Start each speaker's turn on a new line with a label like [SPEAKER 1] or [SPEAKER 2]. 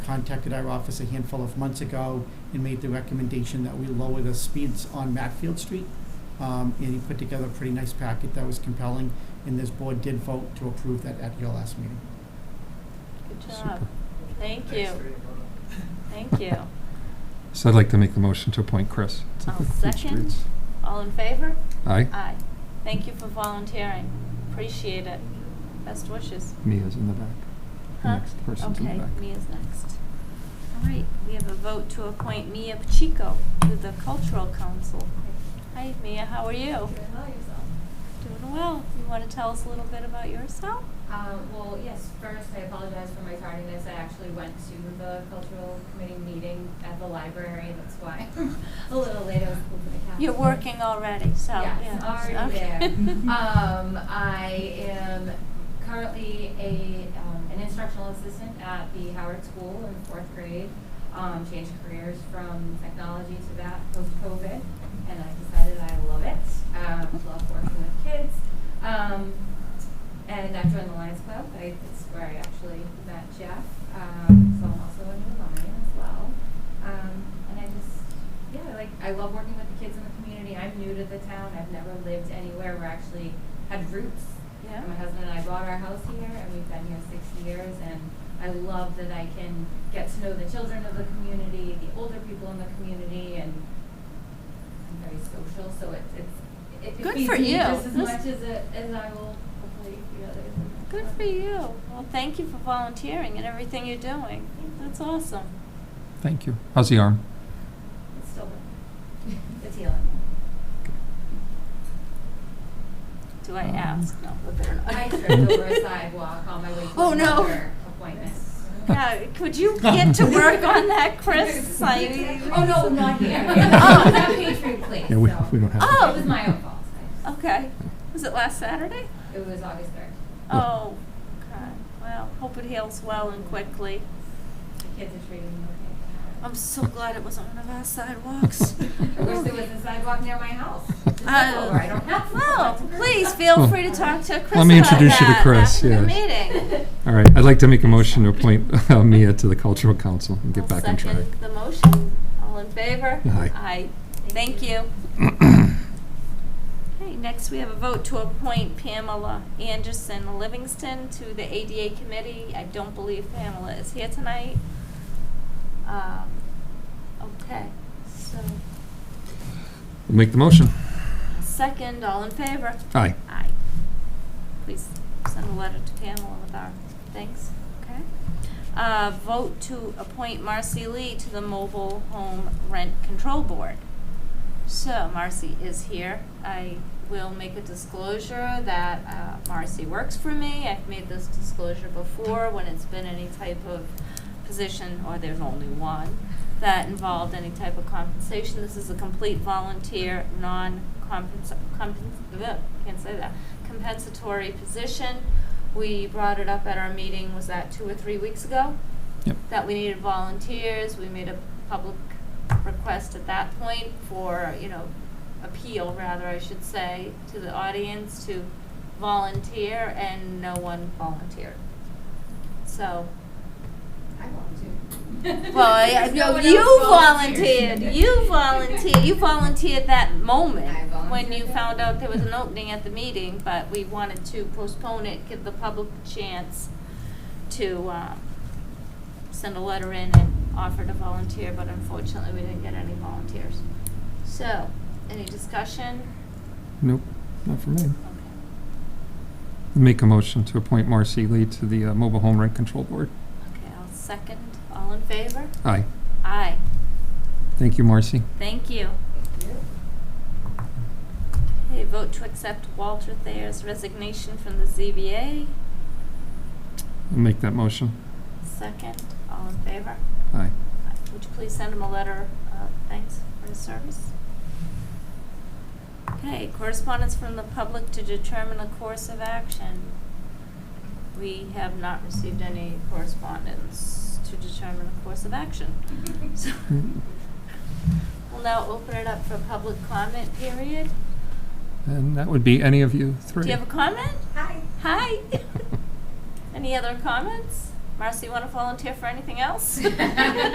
[SPEAKER 1] contacted our office a handful of months ago and made the recommendation that we lower the speeds on Matfield Street. Um, and he put together a pretty nice packet that was compelling, and this board did vote to approve that at your last meeting.
[SPEAKER 2] Good job.
[SPEAKER 3] Super.
[SPEAKER 2] Thank you. Thank you.
[SPEAKER 3] So I'd like to make the motion to appoint Chris. to
[SPEAKER 2] I'll
[SPEAKER 3] the Food
[SPEAKER 2] second. Uh,
[SPEAKER 3] Streets.
[SPEAKER 2] All in favor?
[SPEAKER 3] Aye.
[SPEAKER 2] Aye. Thank you for volunteering. Appreciate it. Best wishes.
[SPEAKER 3] Mia's in the back. The
[SPEAKER 2] Huh?
[SPEAKER 3] Next person's in the back.
[SPEAKER 2] Okay, Mia's next. All right, we have a vote to appoint Mia Pacheco to the Cultural Council. Hi, Mia, how are you?
[SPEAKER 4] Hello, yourself.
[SPEAKER 2] Doing well. You want to tell us a little bit about yourself?
[SPEAKER 4] Um, well, yes, first, I apologize for my tardiness. I actually went to the cultural committee meeting at the library, that's why I'm a little late. I was pulled in the cab.
[SPEAKER 2] You're working already, so, yeah.
[SPEAKER 4] Yes, already
[SPEAKER 2] okay.
[SPEAKER 4] there. Um, I am currently a, um, an instructional assistant at the Howard School in fourth grade. Um, changed careers from technology to that post-COVID, and I decided I love it. Um, love working with kids. Um, and I've joined the Lions Club. I, it's where I actually met Jeff. Um, so I'm also a new Lion as well. Um, and I just, yeah, like I love working with the kids in the community. I'm new to the town. I've never lived anywhere where I actually had roots.
[SPEAKER 2] Yeah.
[SPEAKER 4] My husband and I bought our house here, and we've been here six years. And I love that I can get to know the children of the community, the older people in the community, and I'm very social, so it, it's it, it
[SPEAKER 2] Good
[SPEAKER 4] feeds
[SPEAKER 2] for
[SPEAKER 4] me
[SPEAKER 2] you.
[SPEAKER 4] just as
[SPEAKER 2] This-
[SPEAKER 4] much as it as I will hopefully feed others. and
[SPEAKER 2] Good
[SPEAKER 4] that's
[SPEAKER 2] for
[SPEAKER 4] fun.
[SPEAKER 2] you. Well, thank you for volunteering and everything you're doing. That's awesome.
[SPEAKER 3] Thank you. How's the arm?
[SPEAKER 4] It's still working. it's healing.
[SPEAKER 2] Do I
[SPEAKER 3] Um,
[SPEAKER 2] ask? No, we better not.
[SPEAKER 4] I tripped over a sidewalk on my way to
[SPEAKER 2] Oh, no.
[SPEAKER 4] another appointment.
[SPEAKER 2] Yeah, could you get to work on that, Chris? I-
[SPEAKER 4] oh no, not here.
[SPEAKER 2] Oh.
[SPEAKER 4] It was at Patriot Place.
[SPEAKER 3] Yeah, we-
[SPEAKER 4] so.
[SPEAKER 3] we don't have
[SPEAKER 2] Oh.
[SPEAKER 4] It was my own fault. I-
[SPEAKER 2] Okay. Was it last Saturday?
[SPEAKER 4] It was August third.
[SPEAKER 2] Oh, okay. Well, hope it heals well and quickly.
[SPEAKER 4] The kids are treating me okay.
[SPEAKER 2] I'm so glad it wasn't one of our sidewalks.
[SPEAKER 4] I wish there was a sidewalk near my house. Just
[SPEAKER 2] Uh,
[SPEAKER 4] over. I don't have.
[SPEAKER 2] Well,
[SPEAKER 4] one.
[SPEAKER 2] please feel
[SPEAKER 3] Well,
[SPEAKER 2] free to talk to Chris
[SPEAKER 3] Oh. let me
[SPEAKER 2] about
[SPEAKER 3] introduce you to
[SPEAKER 2] that
[SPEAKER 3] Chris,
[SPEAKER 2] after the
[SPEAKER 3] yes.
[SPEAKER 2] meeting.
[SPEAKER 3] All right, I'd like to make a motion to appoint uh, Mia to the Cultural Council and get
[SPEAKER 2] I'll
[SPEAKER 3] back on track.
[SPEAKER 2] Second the motion. All in favor?
[SPEAKER 3] Aye.
[SPEAKER 2] Aye. Thank you. Okay, next we have a vote to appoint Pamela Anderson Livingston to the ADA committee. I don't believe Pamela is here tonight. Um, Okay, so,
[SPEAKER 3] Make the motion.
[SPEAKER 2] second, all in favor?
[SPEAKER 3] Aye.
[SPEAKER 2] Aye. Please send a letter to Pamela with our thanks, okay? Uh, vote to appoint Marcy Lee to the Mobile Home Rent Control Board. So Marcy is here. I will make a disclosure that uh, Marcy works for me. I've made this disclosure before when it's been any type of position, or there's only one, that involved any type of compensation. This is a complete volunteer, non-compens, compens, bleh, can't say that, compensatory position. We brought it up at our meeting, was that two or three weeks ago?
[SPEAKER 3] Yep.
[SPEAKER 2] that we needed volunteers, we made a public request at that point for, you know, appeal rather, I should say, to the audience to volunteer, and no one volunteered. So,
[SPEAKER 4] I volunteered.
[SPEAKER 2] well, I,
[SPEAKER 4] Because
[SPEAKER 2] no,
[SPEAKER 4] one
[SPEAKER 2] you
[SPEAKER 4] else
[SPEAKER 2] volunteered, you volunteered, you volunteered that moment
[SPEAKER 4] I
[SPEAKER 2] when you
[SPEAKER 4] volunteered.
[SPEAKER 2] found out there was an opening at the meeting, but we wanted to postpone it, give the public a chance to, uh, send a letter in and offer to volunteer, but unfortunately, we didn't get any volunteers. So, any discussion?
[SPEAKER 3] Nope, not for me.
[SPEAKER 2] Okay.
[SPEAKER 3] Make a motion to appoint Marcy Lee to the uh, Mobile Home Rent Control Board.
[SPEAKER 2] Okay, I'll second, all in favor?
[SPEAKER 3] Aye.
[SPEAKER 2] Aye,
[SPEAKER 3] Thank you, Marcy.
[SPEAKER 2] thank you. Okay, vote to accept Walter Thayer's resignation from the ZBA.
[SPEAKER 3] Make that motion.
[SPEAKER 2] Second, all in favor?
[SPEAKER 3] Aye.
[SPEAKER 2] Would you please send him a letter of thanks for his service? Okay, correspondence from the public to determine a course of action. We have not received any correspondence to determine a course of action. So, We'll now open it up for public comment period.
[SPEAKER 3] And that would be any of you three.
[SPEAKER 2] Do you have a comment?
[SPEAKER 4] Hi.
[SPEAKER 2] Hi. Any other comments? Marcy, you want to volunteer for anything else?